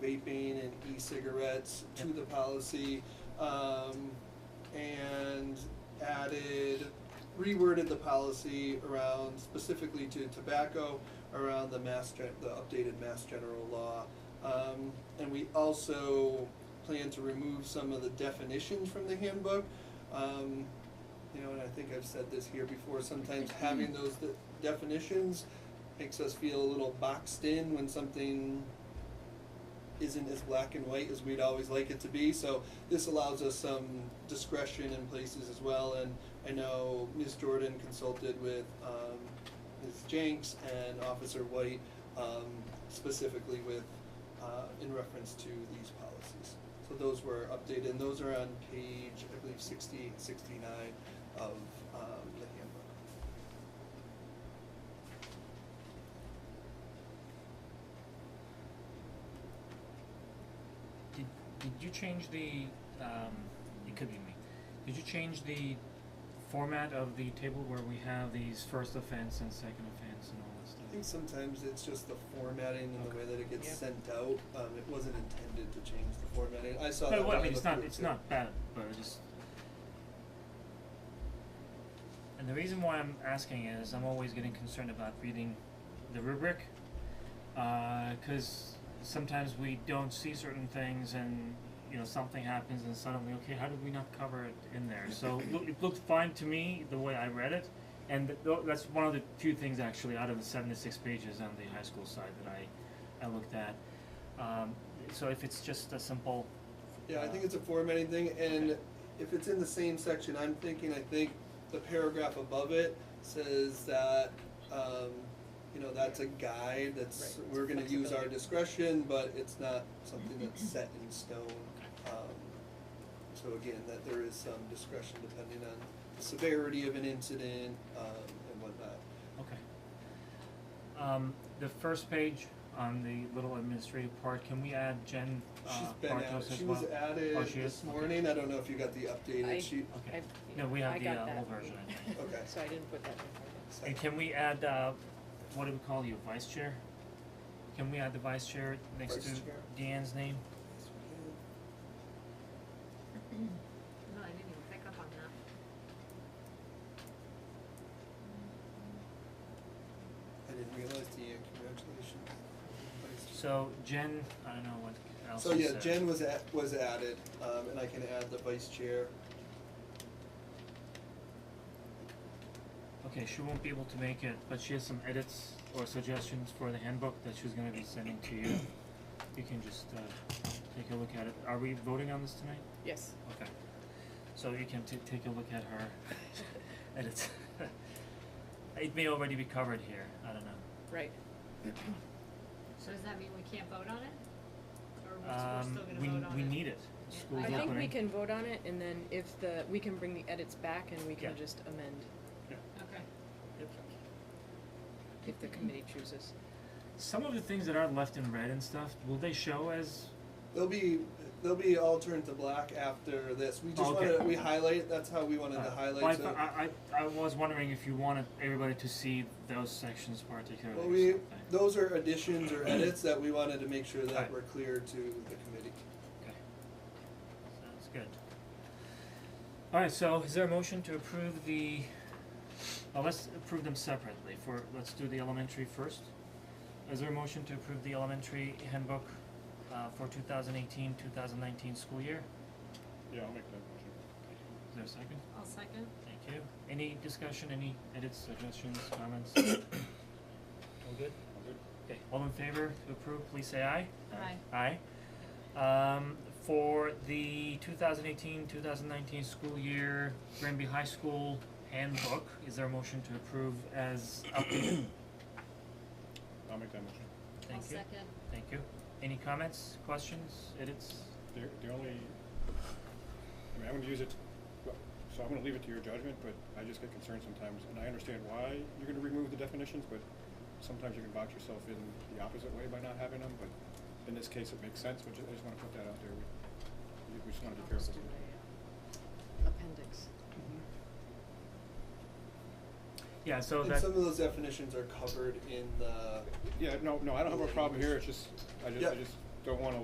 e-cigarettes to the policy, um, and added, reworded the policy around specifically to tobacco, around the mass gen, the updated mass general law. Um, and we also plan to remove some of the definitions from the handbook. Um, you know, and I think I've said this here before, sometimes having those de- definitions makes us feel a little boxed in when something isn't as black and white as we'd always like it to be. So this allows us some discretion in places as well. And I know Ms. Jordan consulted with um, Ms. Jenks and Officer White um, specifically with uh, in reference to these policies. So those were updated, and those are on page, I believe, 60, 69 of um, the handbook. Did, did you change the, um, it could be me, did you change the format of the table where we have these first offense and second offense and all this I stuff? think sometimes it's just the formatting and the way that it gets Yeah. sent out. Um, it wasn't intended to change the formatting. I saw But that. well, I when mean, it's looked not, through it it's too. not bad, but it just. And the reason why I'm asking is I'm always getting concerned about reading the rubric, uh, cause sometimes we don't see certain things and, you know, something happens and suddenly, okay, how did we not cover it in there? So it loo- it looked fine to me, the way I read it, and th- tho- that's one of the few things actually out of the seventy-six pages on the high school side that I, I looked at. Um, so if it's just a simple, Yeah, I think it's a formatting thing, and if it's in the same section, I'm thinking, I think the paragraph above it says that, um, you know, that's a guide, that's, Right, we're it's gonna use our flexibility. discretion, but it's not something Mm-hmm. that's set in stone. Um, So again, that there is some discretion depending on the severity of an incident, um, and whatnot. uh, Okay. Um, the first page on the little administrative part, can we add Jen She's uh, been Bartos added, as well? she was added Oh, she is? this Okay. morning, I don't know if you got the I- updated sheet, Okay. I've- No, we I have the got uh, that. old version, I think. okay. So I didn't put that in my And can we add, uh, what do we call you, vice chair? Can we add the vice chair next Vice to chair. Deanne's name? No, I didn't even pick up on that. I didn't realize the uh, congratulations. So Jen, I don't know what else So is yeah, there. Jen was at, was added, um, and I can add the vice chair. Okay, she won't be able to make it, but she has some edits or suggestions for the handbook that she's gonna be sending to you. You can just uh take a look at it. Are we voting on this tonight? Yes. Okay. So you can t- take a look at her edits. It may already be covered here, I don't know. Right. So does that mean we can't vote on it? Or we're we're Um, still gonna we vote on it? we need it. Yeah. School's I opening. think we can vote on it and then if the, we can bring the edits back and we Yeah. can just amend Okay. Yep. if the committee chooses. Some of the things that are left in red and stuff, will they show as They'll be, they'll be all turned to black after this. We just Okay. wanted, we highlight, that's how we wanted to Uh, highlight, well, so. I, I, I I was wondering if you wanted everybody to see those sections particularly. Well, or we, something. those are additions or edits that we wanted to make sure that Alright. were clear to the committee. Okay. Sounds good. Alright, so is there a motion to approve the, well, let's approve them separately for, let's do the elementary first. Is there a motion to approve the elementary handbook, uh, for 2018-2019 school year? Yeah, I'll make that motion. Is there a second? I'll second. Thank you. Any discussion, any edits, suggestions, comments? All good? All good? Okay, all in favor to approve, please say aye. Aye. Aye. Um, for the 2018-2019 school year, Granby High School handbook, is there a motion to approve as updated? I'll make that motion. Thank you, I'll second. thank you. Any comments, questions, edits? The, the only, I mean, I'm gonna use it, well, so I'm gonna leave it to your judgment, but I just get concerned sometimes, and I understand why you're gonna remove the definitions, but sometimes you can box yourself in the opposite way by not having them, but in this case, it makes sense, but ju- I just wanna put that out there. We, we just wanna be I'll just careful. do a, uh, Appendix. Yeah, so And that, some of those definitions are covered in the Yeah, no, no, I don't have a problem here, it's just, I just, I Yeah. just don't wanna